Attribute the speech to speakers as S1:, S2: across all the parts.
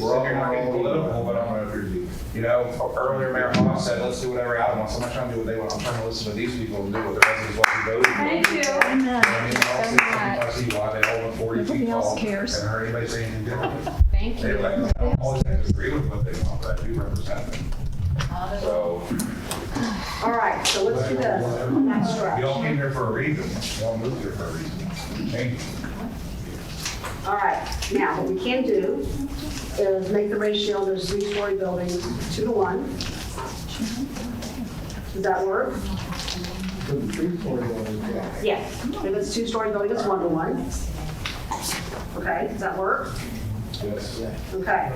S1: We're all, not getting political, but I'm gonna agree. You know, earlier Mayor Hoff said, let's do whatever I want, so I'm not trying to do what they want, I'm trying to listen to these people and do what the residents want to vote.
S2: Thank you.
S1: I mean, I'll see- I see why they hold them forty
S3: Nobody
S1: feet
S3: else
S1: tall.
S3: cares.
S1: Haven't heard anybody say anything different.
S4: Thank
S1: They
S4: you.
S1: like, I don't always have to agree with what they want, but I do represent them. So,
S5: All right, so let's do this. That's right.
S1: y'all came here for a reason, y'all moved here for a reason. Thank you.
S5: All right, now, what we can do is make the ratio of those three-story buildings two to one. Does that work?
S6: For the three story building, yeah.
S5: Yes. If it's two-story building, it's one to one. Okay, does that work?
S1: Yes.
S5: Okay.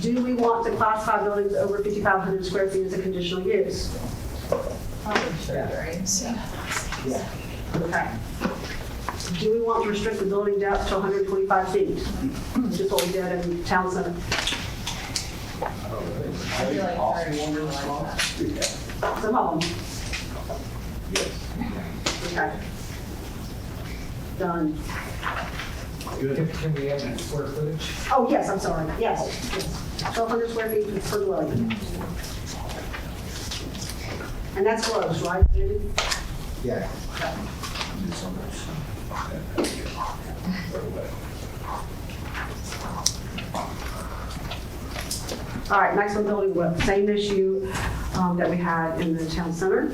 S5: Do we want to classify buildings over 5,500 square feet as a conditional use?
S6: Yeah.
S5: Okay. Do we want to restrict the building depth to 125 feet? Just what we did in Town
S6: I
S5: Center.
S6: feel like very
S5: Some of them. Okay. Done.
S6: Can can we add that square footage?
S5: Oh, yes, I'm sorry, yes. 1,200 square feet per dwelling. And that's closed, right, Judy?
S6: Yeah.
S5: All right, next one, building width, same issue um, that we had in the town center.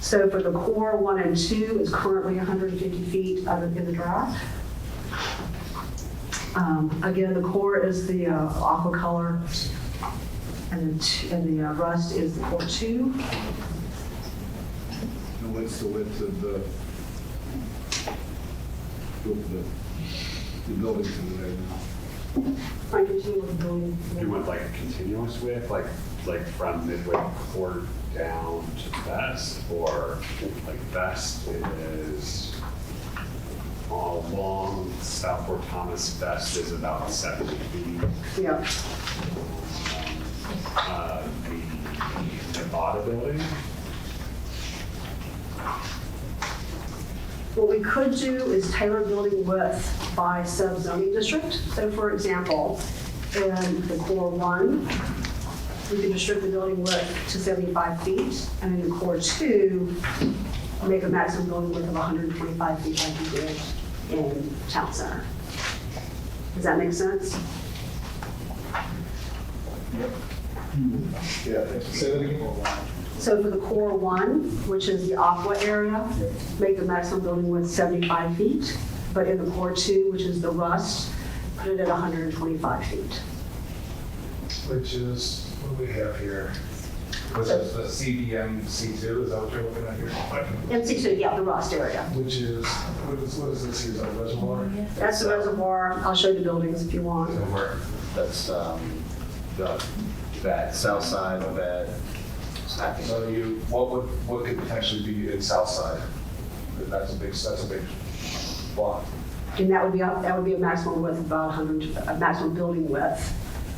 S5: So for the core one and two is currently 150 feet other than the drive. Um, Again, the core is the uh, aqua color, and the t- and the uh, rust is the core two.
S7: And what's the width of the, the, the building to the right?
S5: Frank, did you want to go in?
S8: You want like a continuous width, like, like from midway court down to vest, or like vest is all along South Fort Thomas, vest is about seventy feet. um,
S5: Yeah,
S8: Uh, The Nevada building,
S5: what we could do is tailor building width by sub-zoning district. So for example, in the core one, we could restrict the building width to 75 feet, and in the core two, make a maximum building width of 125 feet like we did in town center. Does that make sense?
S7: Yeah.
S6: Say that again.
S5: So for the core one, which is the aqua area, make the maximum building width 75 feet, but in the core two, which is the rust, put it at 125 feet.
S1: Which is what we have here. Which is the CBM C two, is that what you're looking at here?
S5: MC2, yeah, the rust area.
S1: Which is, what is, what is this, is that reservoir?
S5: That's the reservoir. I'll show you the buildings if you want.
S1: So we're-
S9: That's, um, the, that south side of that, I think,
S1: So you, what would, what could potentially be in Southside? That's a big, that's a big block.
S5: And that would be, a- that would be a maximum width of about 100, a maximum building width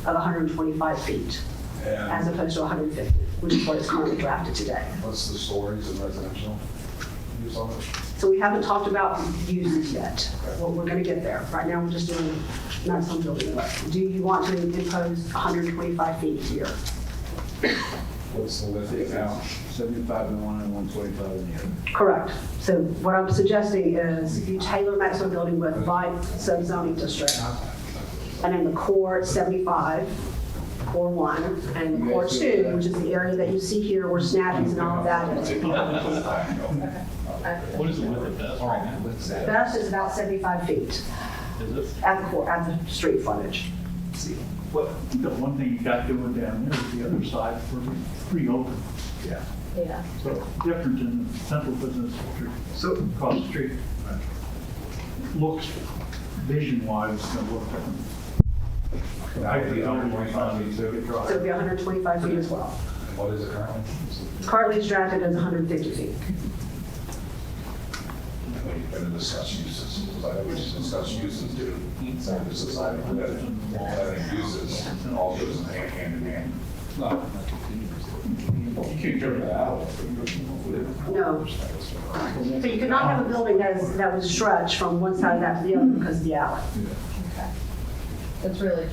S5: of 125 feet, as
S1: And
S5: opposed to 150, which is what is currently drafted today.
S1: what's the stories in residential? Use on it?
S5: So we haven't talked about uses yet. Well, we're gonna get there. Right now, we're just doing maximum building width. Do you want to impose 125 feet here?
S1: What's the width now?
S7: Seventy-five in one and one twenty-five in the other.
S5: Correct. So what I'm suggesting is you tailor maximum building width by sub-zoning district. And in the core, it's 75, core one, and core two, which is the area that you see here where snappies and all of that is.
S10: What is the width of that right now?
S7: What's that?
S5: That's just about 75 feet
S10: Is it?
S5: at the core, at the street frontage.
S10: What, the one thing you got doing down there is the other side for free open.
S7: Yeah.
S4: Yeah.
S10: So different than the central business district
S7: So,
S10: across the street. Looks, vision wise, it's gonna look different.
S1: I think 125 feet too.
S5: So it'd be 125 feet as well.
S1: What is it currently?
S5: Currently it's drafted as 150 feet.
S1: We've been to discuss uses, because I always discuss uses, dude. So this is, I think, that uses, and all goes hand hand in hand. No. You can't carry that out.
S5: No. So you could not have a building that is, that was stretched from one side of that to the other because of the alley.
S4: That's really